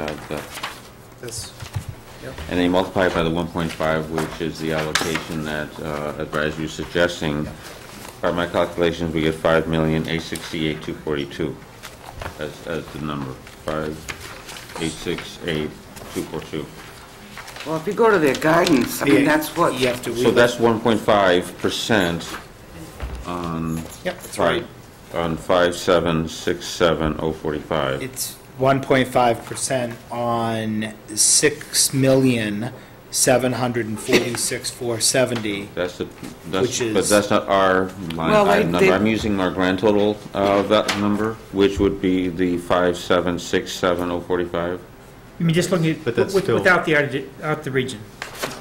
add that. This, uh, And then you multiply it by the 1.5, which is the allocation that uh, advisory is suggesting. By my calculations, we get 5,868,242 as, as the number, 5,868,242. Well, if you go to their guidance, I mean, Yeah, that's what, you have to. So that's 1.5% Yep, that's right. right on 5,767,045. It's one point five percent on six million, seven hundred and forty-six, four seventy. That's the, that's, Which but is- that's not our Well, line they- item number. they- I'm using our grand total uh, of that number, which would be the five, seven, six, seven, oh, forty-five. I mean, just looking at, But that's with- still- without the, added- without the region.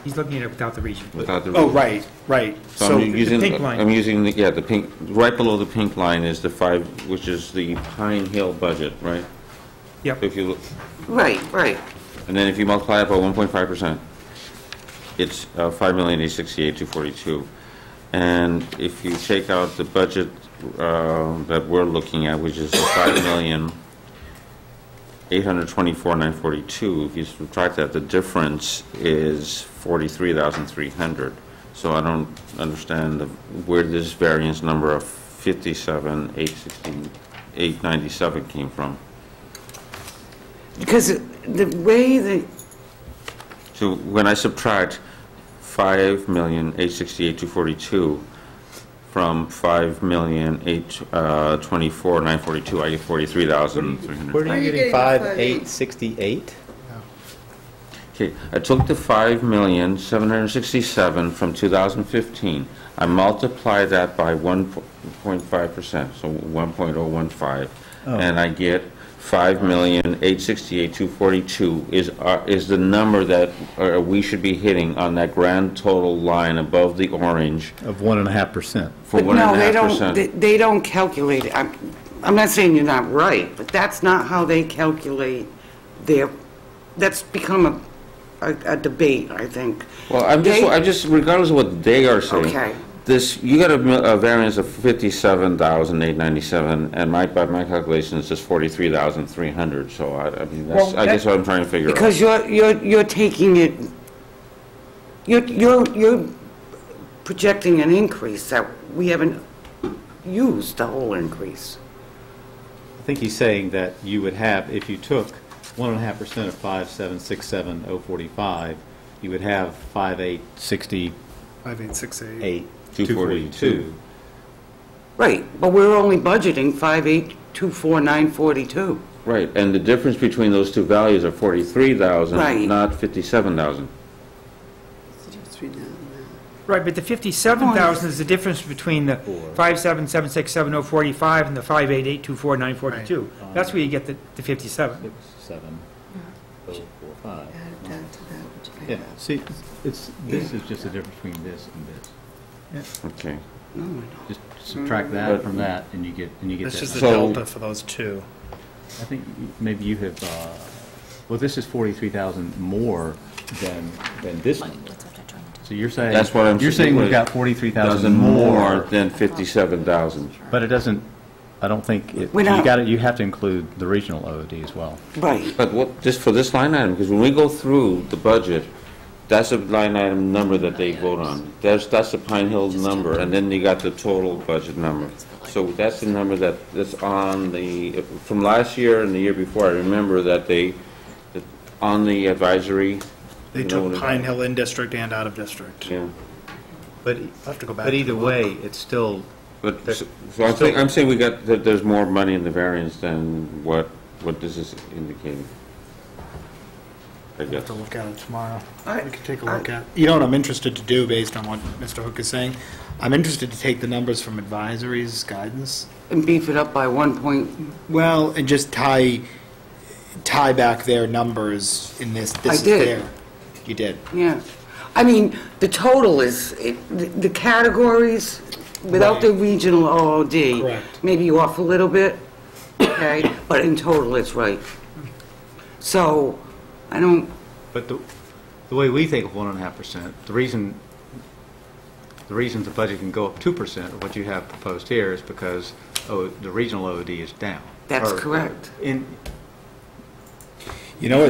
He's looking at it without the region. without the- Oh, right, right. So I'm So, using, pink line. I'm using, the yeah, the pink, right below the pink line is the five, which is the Pine Hill budget, right? Yep. If you look, right, right. and then if you multiply it by one point five percent, it's uh, five million, eight sixty-eight, two forty-two. And if you take out the budget uh, that we're looking at, which is the five million, eight hundred twenty-four, nine forty-two, if you subtract that, the difference is forty-three thousand, three hundred. So I don't understand the- where this variance number of fifty-seven, eight sixteen, eight ninety-seven came from. Because the way the, So when I subtract five million eight sixty-eight two forty-two from five million eight uh, twenty-four nine forty-two, I get forty-three thousand three Where hundred. are Where you getting the five, eight, sixty-eight? Okay, I took the five million seven hundred sixty-seven from two thousand fifteen. I multiply that by one point five percent, so one point oh one five, and I get five million eight sixty-eight two forty-two is our, is the number that uh, we should be hitting on that grand total line above the orange. Of one and a half percent. for but one and no, a they half don't, percent. they- they don't calculate it. I'm, I'm not saying you're not right, but that's not how they calculate their, that's become a, a a debate, I think. Well, I'm just, They- I'm just, regardless of what they are saying. Okay. This, you got a mi- a variance of fifty-seven thousand eight ninety-seven, and my, by my calculations, it's forty-three thousand three hundred, so I, I mean, that's, Well, I guess that- what I'm trying to figure out. Because you're, you're, you're taking it, you're, you're, you're projecting an increase that we haven't used the whole increase. I think he's saying that you would have, if you took one and a half percent of five, seven, six, seven, oh, forty-five, you would have five, eight, sixty-eight, five, eight, six, eight. two 242. forty-two. Right, but we're only budgeting five eight two four nine forty-two. Right, and the difference between those two values are forty-three Right. thousand, not fifty-seven thousand. Right, but the 57,000 is the difference between the oh 5776745 and the 588244942. That's where you get the the 57. Six, seven, oh, four, five. Add to that, which I Yeah, have. see, it's, this is just the difference between this and this. Okay. Just subtract that from that, and you get, and you get This is that. the So- delta for those two. I think maybe you have, uh, well, this is 43,000 more than, than this one. So you're saying. That's what I'm You're saying we've got Thousand 43,000 more more, than fifty-seven thousand. but it doesn't, I don't think, it- We're you not- got to, you have to include the regional OD as well. Right, But what, just for this line item, because when we go through the budget, that's a line item number that they vote on. That's, that's the Pine Hill number, and then you got the total budget number. So that's the number that, that's on the, from last year and the year before, I remember that they, that on the advisory. They you know took what it- Pine Hill in district and out of district. Yeah, But, I'll have to go back. but either way, it's still, but, so so I think, I'm saying we got, that there's more money in the variance than what, what this is indicating. I We'll have guess. to look at it tomorrow. I- We can take a look at. You know what I'm interested to do based on what Mr. Hook is saying? I'm interested to take the numbers from advisories guidance and beef it up by one point, Well, and just tie, tie back their numbers in this, I this is did. there. You did. yeah. I mean, the total is, it- the the categories, without the regional OOD. Correct. Maybe you off a little bit, okay, but in total, it's right. So, I don't, but the, the way we think of one and a half percent, the reason, the reason the budget can go up two percent, what you have proposed here is because, oh, the regional OD is down. That's Or- correct. In, You know,